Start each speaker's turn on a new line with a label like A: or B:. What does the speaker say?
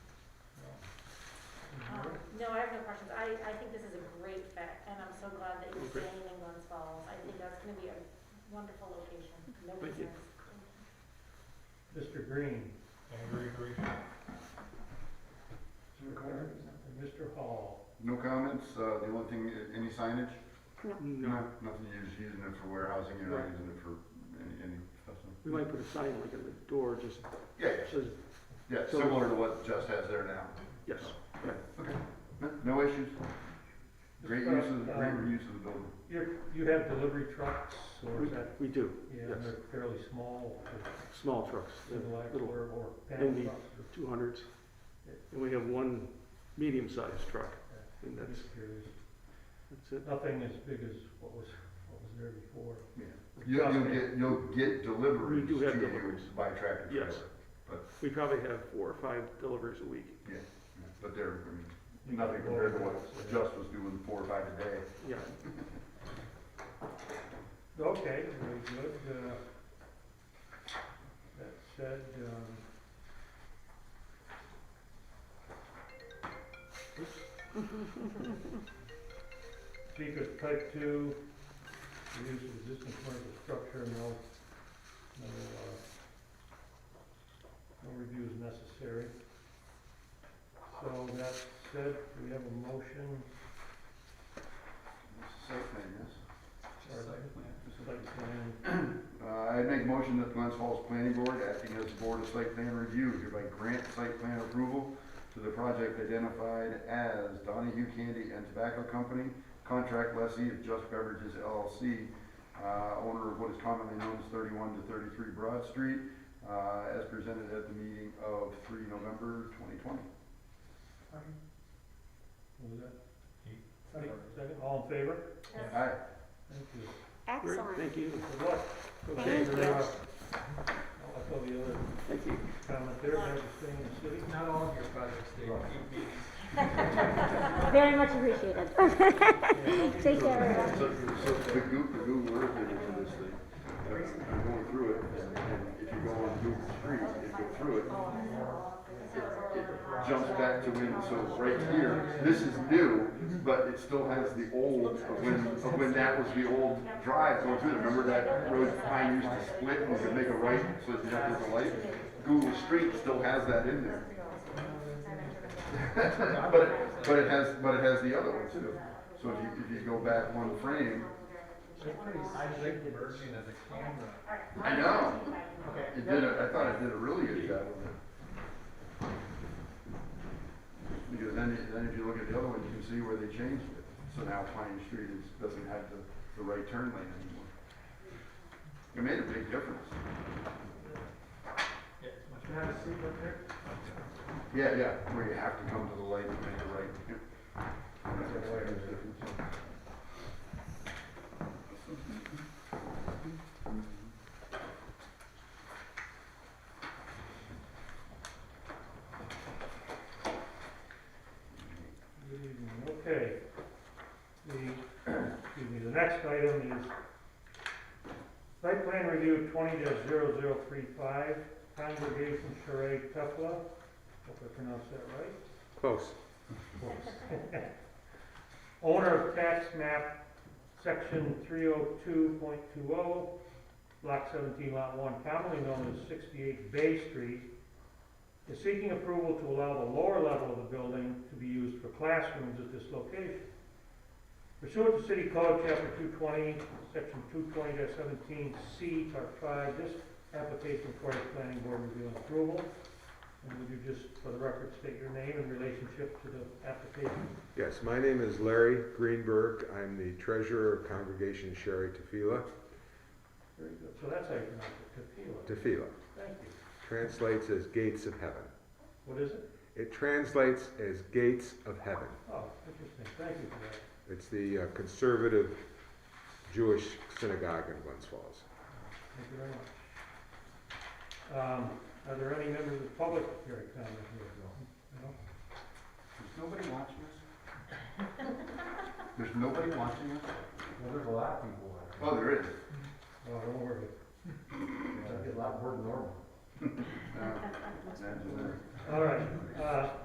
A: Um, wonderful location, no
B: Thank you.
A: concerns.
C: Mr. Green,
D: Angry, agree.
C: and Mr. Hall.
E: No comments, uh, the only thing, uh, any signage?
B: No,
E: Nothing, you're just using it for warehousing, you're not using it for any, any stuff? so-
B: we might put a sign like at the door, just
E: Yeah, yeah,
B: says,
E: yeah,
B: So-
E: similar to what Just has there now.
B: yes.
E: Okay, no, no issues. Great use of, great
C: Um,
E: reuse of the building.
C: You, you have delivery trucks, or
B: We,
C: is that,
B: we do,
C: yeah,
B: yes.
C: they're fairly small, or
B: small trucks,
C: single act
B: little
C: or, or panel
B: Indeed.
C: trucks. or-
B: two hundreds. And we have one medium-sized truck, and
C: I'm
B: that's,
C: just curious.
B: that's it.
C: Nothing as big as what was, what was there before.
E: Yeah. You'll, you'll get, you'll get deliveries
B: We do
E: to
B: have
E: you
B: deliveries.
E: by tractor trailer.
B: Yes. We probably have four or five deliveries a week,
E: But they're, I mean,
C: You
E: nothing
C: can
E: compared to
C: go-
E: what Just was doing four or five a day.
B: yeah.
C: Okay, very good. Uh, That said, um, um, speak of type two, the use of existing commercial structure, no, no, uh, no review is necessary. So that said, we have a motion,
E: It's a safe thing, yes.
C: site plan,
E: Uh, I'd make motion that the Glens Falls Planning Board, acting as the Board of Site Plan Review, hereby grant site plan approval to the project identified as Donahue Candy and Tobacco Company, contract lessee of Just Beverages LLC, uh, owner of what is commonly known as thirty-one to thirty-three Broad Street, uh, as presented at the meeting of three November twenty twenty.
C: what was that? Second, all in favor?
A: Yes.
E: Aye.
C: Thank you.
B: Great,
A: Excellent.
B: Thank you.
C: Good luck.
B: Okay,
C: Very well. I'll echo Oh, the other
B: thank you.
C: comment there, never staying in the city.
D: Not all of your projects, Dave, you mean.
F: Very much appreciated. Take care, everyone.
E: So, so the Google, the Google Earth image of this thing, uh, I'm going through it, and and if you go on Google Street, and go through it, it- it jumps back to when, so right here, this is new, but it still has the old, of when, of when that was the old drive going through. it. Remember that road pine used to split, and we could make a right, so it didn't have to light? Google Street still has that in there. But, it- but it has, but it has the other one too. So if you, if you go back one frame,
D: I like the merging of the camera.
E: I know.
D: Okay.
E: It did, a- I thought it did a really good job of it. Because then, then if you look at the other one, you can see where they changed it. So now Pine Street is, doesn't have the, the right turn lane anymore. It made a big difference.
D: Yeah, it's much
C: Can I have a seat right there?
E: Yeah, yeah, where you have to come to the light to make a right.
C: Good evening, okay. The, excuse me, the next item is site plan review twenty 35 Congregation Charade Tefla, hope I pronounced that right.
B: Close.
C: Owner of tax map, section three oh two point two oh, block seventeen, lot one, commonly known as sixty-eight Bay Street, is seeking approval to allow the lower level of the building to be used for classrooms at this location. Pursuant to City Code, Chapter two twenty, section two twenty seventeen C, part five, this application requires planning board review and approval. And would you just, for the record, state your name and relationship to the application?
G: Yes, my name is Larry Greenberg. I'm the treasurer of Congregation Sherry Tefila.
C: Very good, so that's how you pronounce it, Tefillah.
G: Tefila
C: Thank you.
G: translates as gates of heaven.
C: What is it?
G: It translates as gates of heaven.
C: Oh, interesting, thank you for that.
G: It's the uh, conservative Jewish synagogue in Glens Falls.
C: Thank you very much. Um, are there any members of the public here at comment here? No?
E: There's nobody watching us? There's nobody watching us?
D: Well, there's a lot of people out
E: Oh, there is.
C: Oh, don't worry.
D: there. It's a lot more than normal.
E: Uh, that's-
C: All right, uh,